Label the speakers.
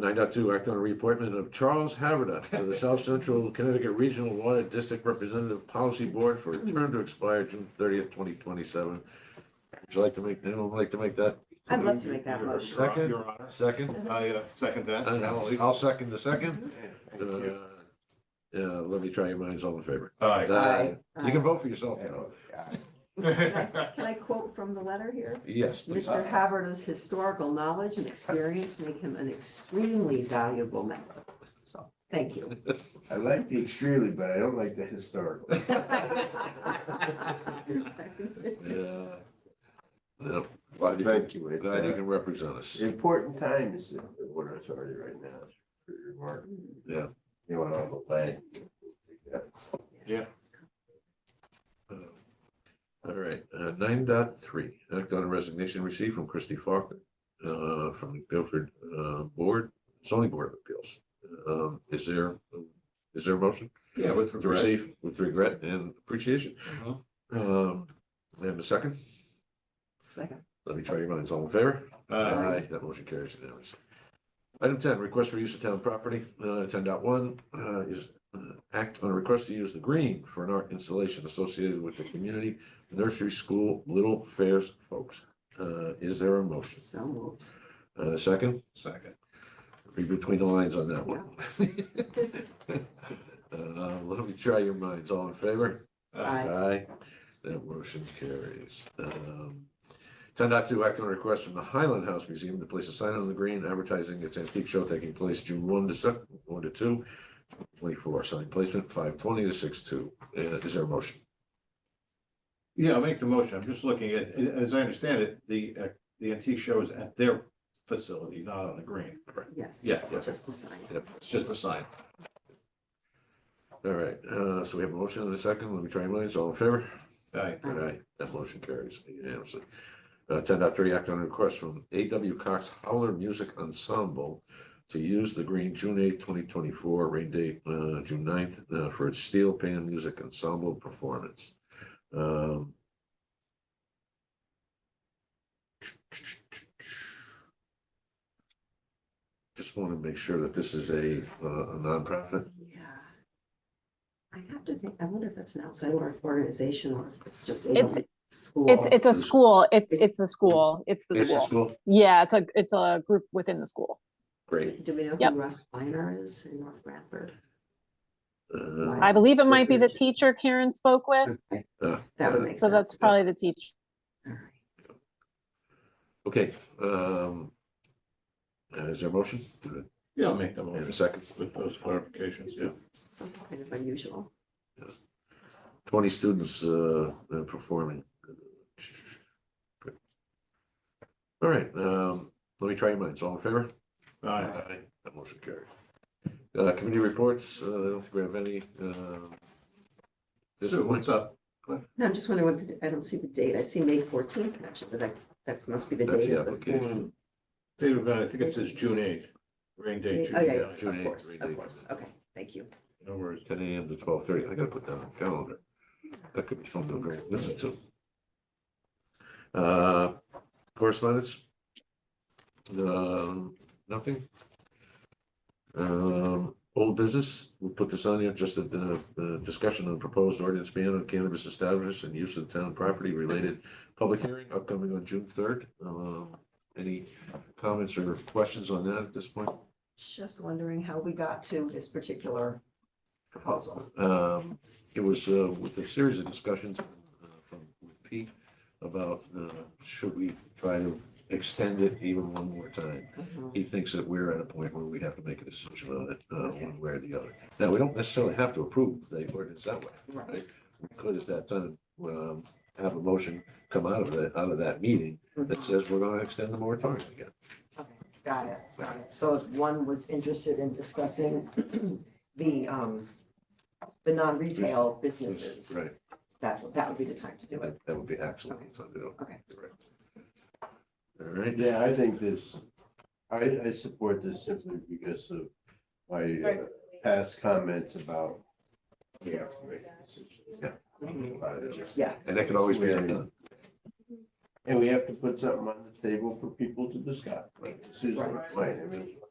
Speaker 1: nine dot two, act on a reappointment of Charles Haverda to the South Central Connecticut Regional Water District Representative Policy Board for a term to expire June thirtieth, twenty twenty-seven. Would you like to make, anyone like to make that
Speaker 2: I'd love to make that motion.
Speaker 1: Second.
Speaker 3: Your Honor,
Speaker 1: second?
Speaker 3: I uh, second Mm-hmm. that.
Speaker 1: And I'll, I'll second the second.
Speaker 3: Thank
Speaker 1: Uh,
Speaker 3: you.
Speaker 1: Yeah, let me try your minds all in favor.
Speaker 3: Aye.
Speaker 1: Aye. You can
Speaker 2: Aye.
Speaker 1: vote for yourself, you know.
Speaker 2: Can I quote from the letter here?
Speaker 1: Yes, please.
Speaker 2: Mr. Haberda's historical knowledge and experience make him an extremely valuable member. So, thank you.
Speaker 4: I like the extremely, but I don't like the historical.
Speaker 1: Yeah. Yeah, Glad you
Speaker 4: Thank you. It's,
Speaker 1: glad you
Speaker 4: uh,
Speaker 1: can represent us.
Speaker 4: Important time is the the water authority right now. for your work.
Speaker 1: Yeah.
Speaker 4: You want all the land.
Speaker 1: All right, uh, nine dot three, act on a resignation received from Christy Faulkner, uh, from the Guilford, uh, Board, zoning board of appeals. Um, is there, is there a motion?
Speaker 3: Yeah, with
Speaker 1: To receive with regret and appreciation.
Speaker 3: Mhm.
Speaker 1: Um, and a second,
Speaker 2: Second.
Speaker 1: let me try your minds, all in favor?
Speaker 3: Uh,
Speaker 1: That motion carries unanimously. Item ten, request for use of town property, uh, ten dot one, uh, is uh, act on a request to use the green for an art installation associated with the community nursery school Little Fairs folks. Uh, is there a motion?
Speaker 2: So moved.
Speaker 1: Uh, a second,
Speaker 3: Second.
Speaker 1: read between the lines on that one. Uh, let me try your minds, all in favor?
Speaker 3: Uh,
Speaker 2: Aye.
Speaker 1: Aye. That motion carries. Um, Ten dot two, act on a request from the Highland House Museum to place a sign on the green advertising its antique show taking place June one to sec, one to two. Twenty-four, sign placement five twenty to six two. Uh, Is there a motion?
Speaker 3: Yeah, I'll make the motion. I'm just looking at, as I understand it, the, uh, the antique show is at their facility, not on the green.
Speaker 2: Yes.
Speaker 3: Yeah, yeah.
Speaker 2: Just the sign.
Speaker 1: Yep.
Speaker 3: It's just a sign.
Speaker 1: All right, uh, so we have a motion and a second. Let me try your minds. All in favor?
Speaker 3: Aye.
Speaker 2: Aye.
Speaker 1: Aye, that motion carries unanimously. Uh, ten dot three, act on a request from A W Cox Howler Music Ensemble to use the green June eighth, twenty twenty-four, rain date, uh, June 9th uh, for its steel pan music ensemble performance. Um. Just want to make sure that this is a, uh, a nonprofit.
Speaker 2: Yeah. I have to think, I wonder if that's an outside or- organization or if it's just. a
Speaker 5: It's-
Speaker 2: School.
Speaker 5: It's it's a
Speaker 1: It's-
Speaker 5: school. It's
Speaker 2: it's-
Speaker 5: it's a school. It's the
Speaker 1: It's a
Speaker 5: school.
Speaker 1: school.
Speaker 5: Yeah, it's a it's a group within the school.
Speaker 1: Great.
Speaker 2: Do we know
Speaker 5: Yep.
Speaker 2: who Russ Kleiner is in North Bradford?
Speaker 1: Uh,
Speaker 5: I believe it might be the
Speaker 2: Research.
Speaker 5: teacher Karen spoke with,
Speaker 2: Okay,
Speaker 1: uh,
Speaker 2: That would make sense.
Speaker 5: so that's probably the teacher.
Speaker 2: All right.
Speaker 1: Okay, um. uh, Is there a motion?
Speaker 3: Yeah, I'll make the
Speaker 1: And a
Speaker 3: motion
Speaker 1: second,
Speaker 3: with those clarifications, yeah.
Speaker 2: Some kind of unusual.
Speaker 1: twenty students, uh, uh, performing. All right, um, let me try your minds, all in favor?
Speaker 3: Aye.
Speaker 1: That motion carries. Uh, committee reports, uh, I don't think we have any, um. This
Speaker 3: Sue,
Speaker 1: one,
Speaker 3: what's up?
Speaker 2: No, I'm just wondering what, the I don't see the date. I see May fourteenth, actually, that, that must be the
Speaker 1: that's
Speaker 2: date.
Speaker 1: the
Speaker 2: of the-
Speaker 1: application.
Speaker 3: Date of event, I think it says June eighth, rain date, June
Speaker 2: Oh, yeah, yeah,
Speaker 3: eighth.
Speaker 1: June
Speaker 2: of
Speaker 1: 8th,
Speaker 2: course,
Speaker 1: June
Speaker 2: of
Speaker 1: 8th.
Speaker 2: course. Okay, thank you.
Speaker 3: No worries.
Speaker 1: Ten AM to twelve thirty, I gotta put that on the calendar. That could be fun to agree- listen to. Uh, correspondence? Um, nothing? Um, old business, we put this on here, just a, uh, uh, discussion on proposed ordinance ban on cannabis establishments and use of town property related public hearing upcoming on June third. Um, any comments or questions on that at this point?
Speaker 2: Just wondering how we got to this particular proposal.
Speaker 1: Um, it was, uh, with a series of discussions, uh, from with Pete about, uh, should we try to extend it even one more time?
Speaker 2: Mhm.
Speaker 1: He thinks that we're at a point where we have to make a decision on it, uh,
Speaker 2: Okay.
Speaker 1: one way or the other. Now, we don't necessarily have to approve the ordinance that way.
Speaker 2: Right,
Speaker 1: We could at that time, um, have a motion come out of that, out of that meeting that
Speaker 2: mhm.
Speaker 1: says we're gonna extend the moratorium again.
Speaker 2: Okay, Got it, got it. So if one was interested in discussing the, um, the non-retail businesses,
Speaker 1: Right,
Speaker 2: that, that would be the time to do it.
Speaker 1: that, that would be excellent, so, you know.
Speaker 2: Okay.
Speaker 1: Correct. All right.
Speaker 4: Yeah, I think this, I, I support this simply because of my uh, past comments about. the affirmative decisions.
Speaker 1: Yeah.
Speaker 4: About it, just-
Speaker 2: Yeah,
Speaker 1: And that can always be uh, undone.
Speaker 4: And we have to put something on the table for people to discuss, like Susan
Speaker 2: Right.
Speaker 4: explained, I mean,